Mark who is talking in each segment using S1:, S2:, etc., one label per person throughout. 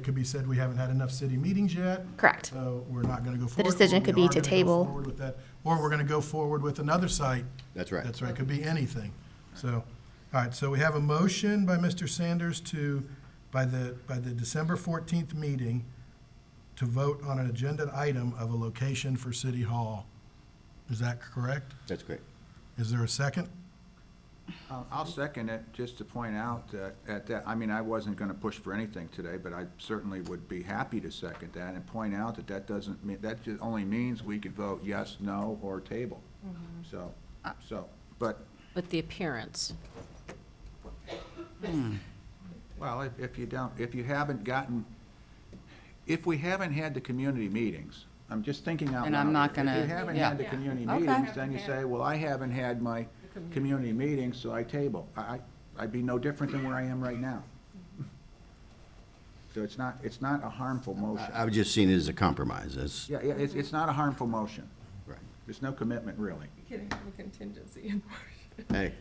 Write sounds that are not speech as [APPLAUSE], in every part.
S1: could be said we haven't had enough city meetings yet.
S2: Correct.
S1: So we're not going to go forward.
S2: decision
S1: We
S2: could be
S1: are
S2: to
S1: gonna go
S2: table.
S1: forward with that, Or we're going to go forward with another site.
S3: That's right.
S1: That's right, could be anything. So, all right, so we have a motion by Mr. Sanders to, by the, by the December 14th meeting, to vote on an agenda item of a location for City Hall. Is that correct?
S3: That's great.
S1: Is there a second?
S4: Uh, I'll second it, just to point out that, at that, I mean, I wasn't gonna push for anything today, but I certainly would be happy to second that and point out that that doesn't mean, that just only means we could vote yes, no, or table. So, so, but,
S5: With the appearance.
S4: well, if, if you don't, if you haven't gotten, if we haven't had the community meetings, I'm just thinking out loud.
S6: And I'm not
S4: If
S6: gonna-
S4: you haven't
S6: yeah.
S4: had the community
S6: Okay.
S4: meetings, then you say, well, I haven't had my community meetings, so I table. I, I- I'd be no different than where I am right now. So it's not, it's not a harmful motion.
S3: I- I've just seen it as a compromise, that's,
S4: Yeah, yeah, it's, it's not a harmful motion.
S3: right.
S4: There's no commitment, really.
S7: Can have a contingency in March.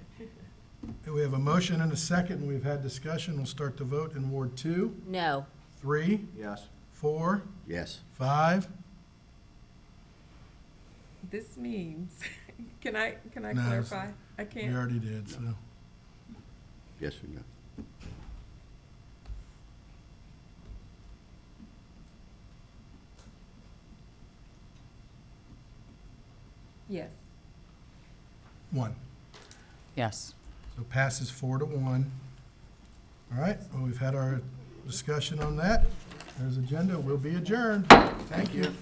S3: Hey,
S1: We have a motion and a second, we've had discussion, we'll start the vote in Ward 2,
S5: No.
S1: 3,
S4: Yes.
S1: 4,
S3: yes,
S1: 5,
S7: This means, [LAUGHS] can I, can I
S1: No, it's-
S7: clarify? I
S1: we
S7: can't.
S1: already did, so.
S3: yes or no?
S7: Yes.
S1: One.
S6: Yes.
S1: So passes four to one. All right, well, we've had our discussion on that. There's agenda, we'll be adjourned. Thank you.